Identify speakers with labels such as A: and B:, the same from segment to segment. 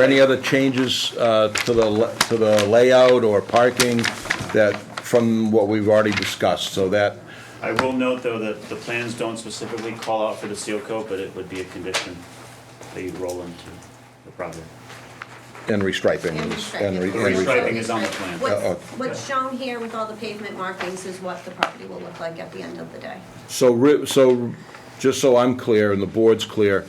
A: there any other changes uh, to the, la- to the layout or parking that, from what we've already discussed? So that,
B: I will note, though, that the plans don't specifically call out for the seal coat, but it would be a condition that you roll into the project.
A: and restriping.
C: And
A: is-
C: restriping.
A: re-
B: The
A: re-
B: restriping is on the plan.
C: What's-
A: Uh, uh.
C: What's shown here with all the pavement markings is what the property will look like at the end of the day.
A: So, re- so, just so I'm clear and the board's clear,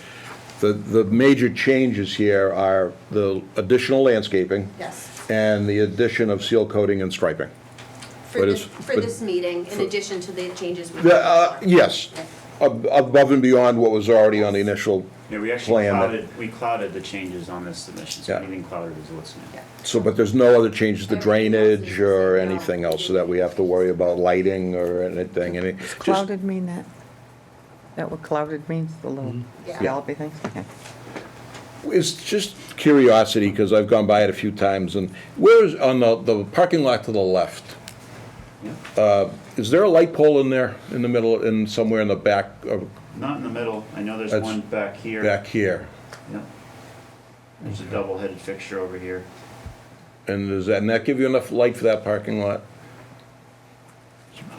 A: the, the major changes here are the additional landscaping
C: Yes.
A: and the addition of seal coating and striping.
C: For
A: But
C: this,
A: it's-
C: for
A: but-
C: this meeting, in addition to the changes we.
A: The, uh, Yes, ab- above and beyond what was already on the initial
B: Yeah, we actually
A: plan. that-
B: clouded, we clouded the changes on this submission, so
A: Yeah.
B: anything clouded is what's new.
C: Yeah.
A: So, but there's no other changes to
C: Everything else is the
A: drainage or
C: same, no.
A: anything else that we have to worry about lighting or anything, any, just,
D: Clouded mean that? That what clouded means, the little
C: Yeah.
D: scallopy things? Okay.
A: it's just curiosity, because I've gone by it a few times, and where's, on the, the parking lot to the left,
B: Yeah.
A: is there a light pole in there, in the middle, in, somewhere in the back, of-
B: Not in the middle, I know there's
A: That's
B: one back here.
A: back here?
B: Yep. There's a double-headed fixture over here.
A: And does that, and that give you enough light for that parking lot?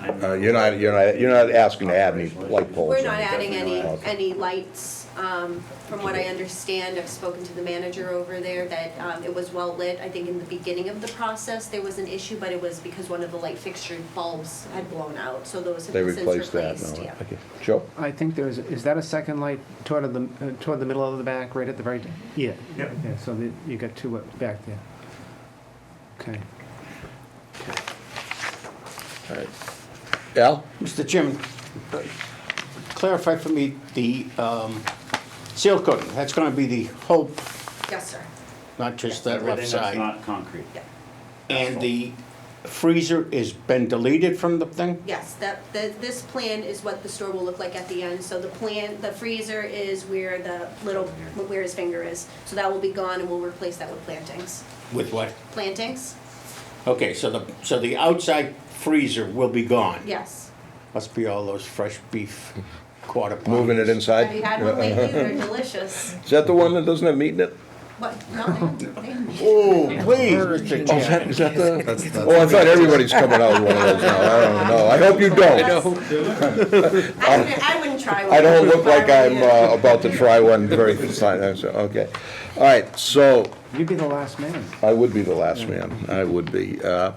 B: I'm-
A: Uh, you're not, you're not, you're not asking to add any
B: Operational
A: light
B: issues.
A: poles?
C: We're not adding any,
A: Definitely not.
C: any lights, um, from what I understand, I've spoken to the manager over there, that, um, it was well lit. I think in the beginning of the process, there was an issue, but it was because one of the light fixture bulbs had blown out, so those have
A: They
C: been since
A: replaced
C: replaced, yeah.
A: that, no, okay. Joe?
E: I think there's, is that a second light toward the, uh, toward the middle of the back, right at the very? Yeah.
B: Yep.
E: Yeah, so the- you got two up back there. Okay.
A: All right. Al?
F: Mr. Chairman, uh, clarify for me the um, seal coating. That's going to be the whole,
C: Yes, sir,
F: not just that
B: Everything that's
F: left side.
B: not concrete.
C: yeah.
F: And the freezer is been deleted from the thing?
C: Yes, that, the, this plan is what the store will look like at the end, so the plan, the freezer is where the little, where his finger is. So that will be gone and we'll replace that with plantings.
F: With what?
C: Plantings?
F: Okay, so the, so the outside freezer will be gone?
C: Yes.
F: Must be all those fresh beef quarter pounders.
A: Moving it inside?
C: Have you had one lately? They're delicious.
A: Is that the one that doesn't have meat in it?
C: What, no, I haven't. I haven't.
F: Oh, please, Mr.
A: Oh, is that,
F: Chairman.
A: is that the, oh, I thought everybody's coming out with one of those now, I don't know, I hope you don't.
C: I wouldn't, I wouldn't try one.
A: I don't look like I'm
C: Barbecue.
A: uh, about to try one very, okay. All right, so,
E: You'd be the last man.
A: I would be the last man, I would be. uh, All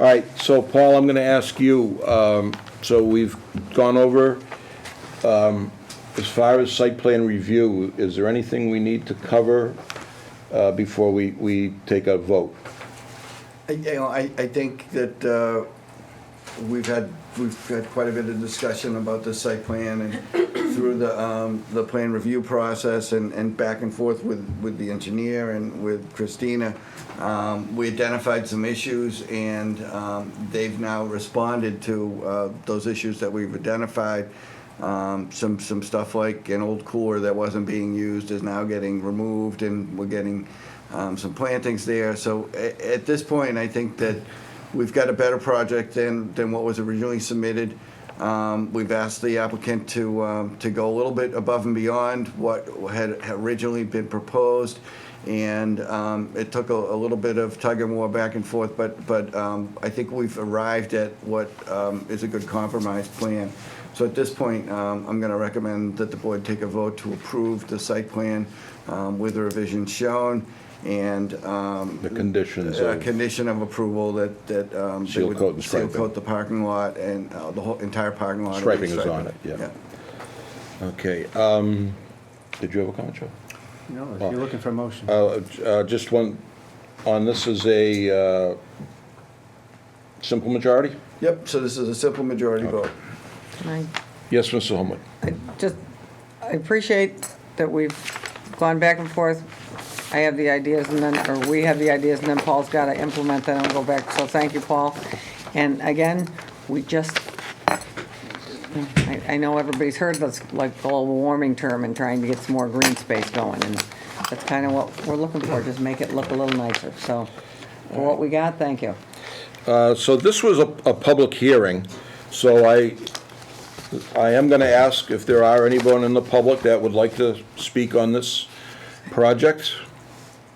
A: right, so Paul, I'm gonna ask you, um, so we've gone over, um, as far as site plan review, is there anything we need to cover uh, before we, we take a vote?
G: I- You know, I, I think that uh, we've had, we've had quite a bit of discussion about the site plan and through the, um, the plan review process and, and back and forth with, with the engineer and with Christina. Um, We identified some issues and um, they've now responded to uh, those issues that we've identified. Um, Some, some stuff like an old cooler that wasn't being used is now getting removed and we're getting um, some plantings there. So a- at this point, I think that we've got a better project than, than what was originally submitted. Um, We've asked the applicant to, um, to go a little bit above and beyond what had had originally been proposed. And um, it took a, a little bit of tug and war back and forth, but, but um, I think we've arrived at what um, is a good compromise plan. So at this point, um, I'm going to recommend that the board take a vote to approve the site plan um, with the revisions shown and. um,
A: The conditions
G: a
A: of-
G: Condition of approval that, that. um, they
A: Seal
G: would
A: coat and striping.
G: Seal coat the parking lot and uh, the whole, entire parking lot.
A: Striping is on it, yeah. Okay, um, did you have a comment, Joe?
E: No, if you're looking for a motion.
A: Uh, uh, Just one, on this is a uh, simple majority?
G: Yep, so this is a simple majority vote.
D: Can I
A: Yes, Mr. Holman?
D: I just, I appreciate that we've gone back and forth. I have the ideas and then, or we have the ideas and then Paul's got to implement that and go back. So thank you, Paul. And again, we just, I, I know everybody's heard this, like global warming term and trying to get some more green space going. And that's kind of what we're looking for, just make it look a little nicer. So for what we got, thank you.
A: Uh, So this was a, a public hearing, so I, I am going to ask if there are anyone in the public that would like to speak on this project.